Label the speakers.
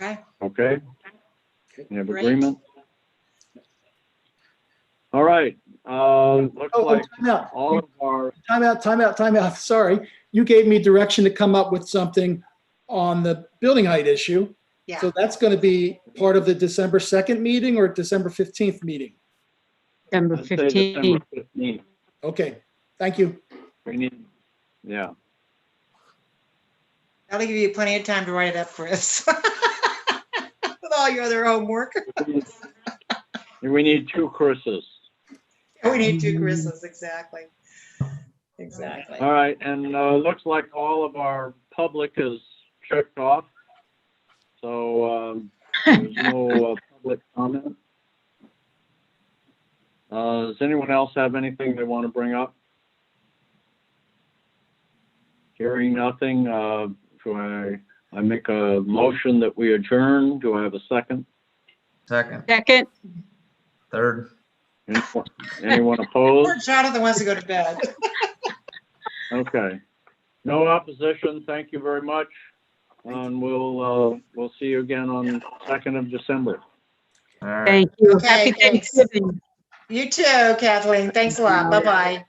Speaker 1: Okay.
Speaker 2: Okay? You have
Speaker 1: Great.
Speaker 2: agreement? All right, uh, looks
Speaker 3: Oh,
Speaker 2: like
Speaker 3: timeout,
Speaker 2: all of our,
Speaker 3: timeout, timeout, timeout. Sorry. You gave me direction to come up with something on the building height issue.
Speaker 1: Yeah.
Speaker 3: So that's going to be part of the December 2nd meeting or December 15th meeting?
Speaker 4: December
Speaker 2: let's say December
Speaker 4: 15th.
Speaker 2: 15th.
Speaker 3: Okay, thank you.
Speaker 2: We need, yeah,
Speaker 1: That'll give you plenty of time to write it up, Chris. With all your other homework.
Speaker 2: we need- we need two Chris's.
Speaker 1: We need two Chris's, exactly. Exactly.
Speaker 2: All right, and uh, looks like all of our public is checked off. So um, there's no uh, public comment. Uh, Does anyone else have anything they want to bring up? Hearing nothing, uh, do I, I make a motion that we adjourn? Do I have a second?
Speaker 5: Second,
Speaker 4: Second,
Speaker 5: third.
Speaker 2: Anyone- Anyone opposed?
Speaker 1: Poor Jonathan wants to go to bed.
Speaker 2: Okay. No opposition. Thank you very much. And we'll, uh, we'll see you again on 2nd of December.
Speaker 5: All right.
Speaker 4: thank you.
Speaker 1: Okay,
Speaker 4: Happy
Speaker 1: thanks.
Speaker 4: Thanksgiving.
Speaker 1: You too, Kathleen. Thanks a lot. Bye-bye.